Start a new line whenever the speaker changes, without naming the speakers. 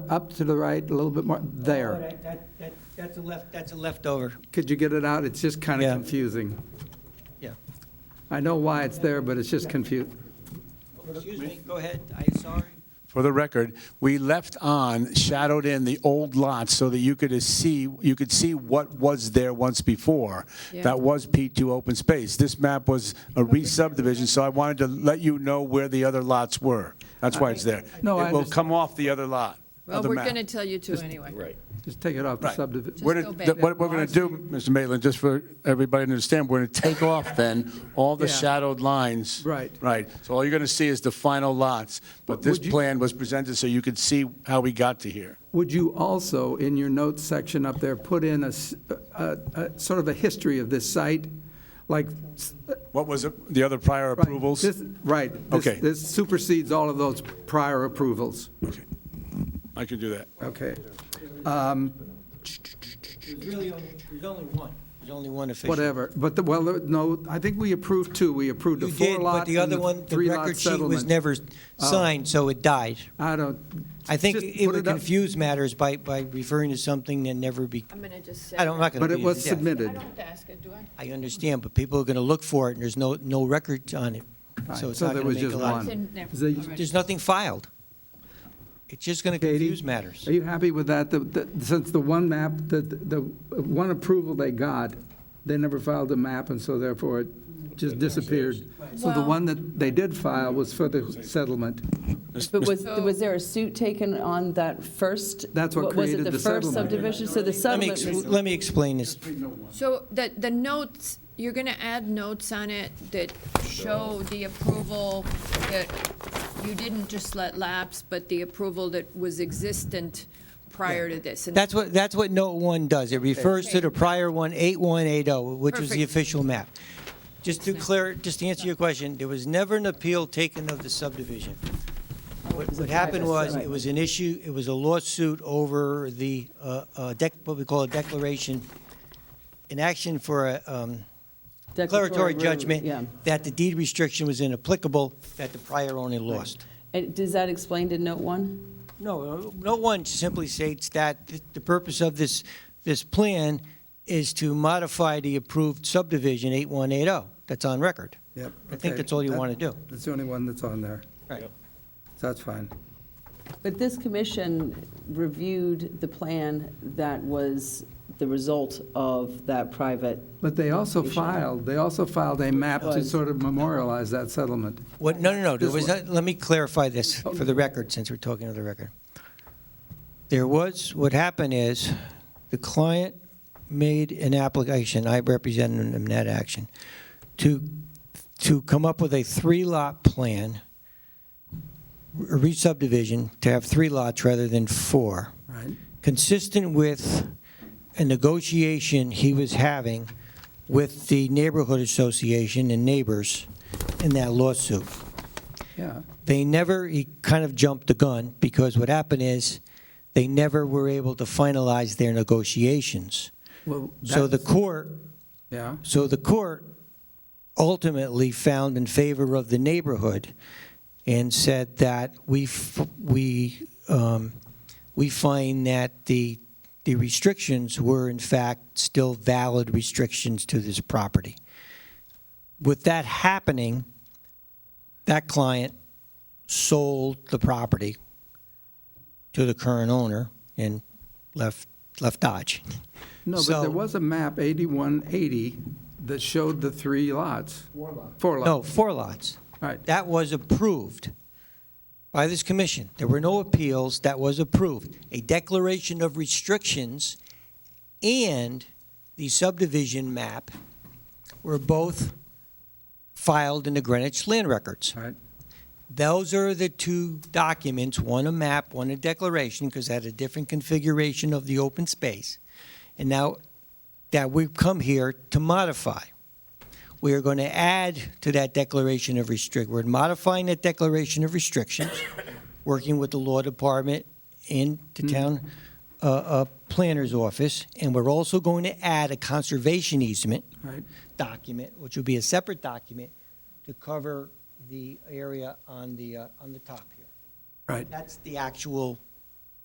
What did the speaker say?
up to the right, a little bit more,
Oh,
there.
that- that- that- That's a left, that's a leftover,
Could you get it out? It's just kind of
Yeah.
confusing.
yeah.
I know why it's there, but it's just confusing.
Excuse me, go ahead, I'm sorry.
For the record, we left on, shadowed in the old lots so that you could see, you could see what was there once before.
Yeah.
That was P2 open space. This map was a re-subdivision, so I wanted to let you know where the other lots were. That's why it's there.
No, I
It will
understand.
come off the other lot,
Well,
other
we're
map.
going to tell you to anyway.
Just take it off the
Right.
subdivision.
We're
Just
gonna-
go
th-
back.
What we're going to do, Mr. Maitland, just for everybody to understand, we're going to take off then all the
Yeah.
shadowed lines.
Right.
Right. So all you're going to see is the final lots, but this
Would you-
plan was presented so you could see how we got to here.
Would you also, in your notes section up there, put in a, s- a- a- sort of a history of this site? Like, s-
What was it- the other prior
Right,
approvals?
this- Right. this-
Okay.
This supersedes all of those prior approvals.
Okay. I can do that.
Okay.
There's really only, there's only one. There's only one official.
Whatever. But, the well, no, I think we approved two. We approved the
You did, but
four-lot
the
and
other
the
one, the
three-lot
record sheet was
settlement.
never signed, so it died.
I don't.
I think
just
it
put
would
up,
confuse matters by, by referring to something that never be,
I'm going to just say.
I don't, I'm not going to.
But it was
I
submitted.
don't ask it, do I?
I understand, but people are going to look for it, and there's no, no record on it. So
Right,
it's
so
not
there
going
was
to make
just
a lot.
one.
It's in there.
Is it-
All right.
There's nothing filed. It's just going to
Katie?
confuse matters.
Are you happy with that? The- the- Since the one map, the, the one approval they got, they never filed a map, and so therefore it just disappeared. So the
Well-
one that they did file was for the settlement.
But was, was there a suit taken on that first?
That's what created the
Was it the first
settlement.
subdivision? So the
Let me,
settlement,
ex- let me explain this.
So the, the notes, you're going to add notes on it that show the approval that you didn't just let lapse, but the approval that was existent prior to this. And
That's what, that's what note one does. It refers to the prior one, 8180, which was the
Perfect.
official map. Just to clear, just to answer your question, there was never an appeal taken of the subdivision. What what happened was, it was an issue, it was a lawsuit over the, uh, uh, dec- what we call a declaration, an action for a um, declaratory
rule, Yeah.
judgment that the deed restriction was inapplicable, that the prior owner lost.
And Does that explain to note one?
No, uh, no one simply states that th- the purpose of this, this plan is to modify the approved subdivision 8180. oh. That's on record.
Yep.
I think that's all you want to do.
That's the only one that's on there.
Right.
So That's fine.
But this commission reviewed the plan that was the result of that private,
But they also filed, they also filed a map to
Was-
sort of memorialize that settlement.
What, no, no, no, there
This
was, not- let me clarify this for the record, since we're talking to the record. There was, what happened is, the client made an application, I represented him in that action, to, to come up with a three-lot plan, a re-subdivision, to have three lots rather than four
Right.
consistent with a negotiation he was having with the neighborhood association and neighbors in that lawsuit.
Yeah.
They never, he kind of jumped the gun, because what happened is, they never were able to finalize their negotiations.
Well,
So the
that's-
court,
Yeah,
so the court ultimately found in favor of the neighborhood and said that we, f- we, um, we find that the, the restrictions were in fact still valid restrictions to this property. With that happening, that client sold the property to the current owner and left, left Dodge.
no, but
So-
there was a map, 8180, that showed the three lots. Four lots. Four lots.
No, four lots.
Right,
That was approved by this commission. There were no appeals, that was approved. A declaration of restrictions and the subdivision map were both filed in the Greenwich Land Records.
right.
Those are the two documents, one a map, one a declaration, because it had a different configuration of the open space. And now that we've come here to modify, we are going to add to that declaration of restrict, we're modifying that declaration of restrictions, working with the law department and the
Mm-hmm.
town uh, uh, planner's office, and we're also going to add a conservation easement
Right.
document, which will be a separate document, to cover the area on the, uh, on the top here.
Right.
That's the actual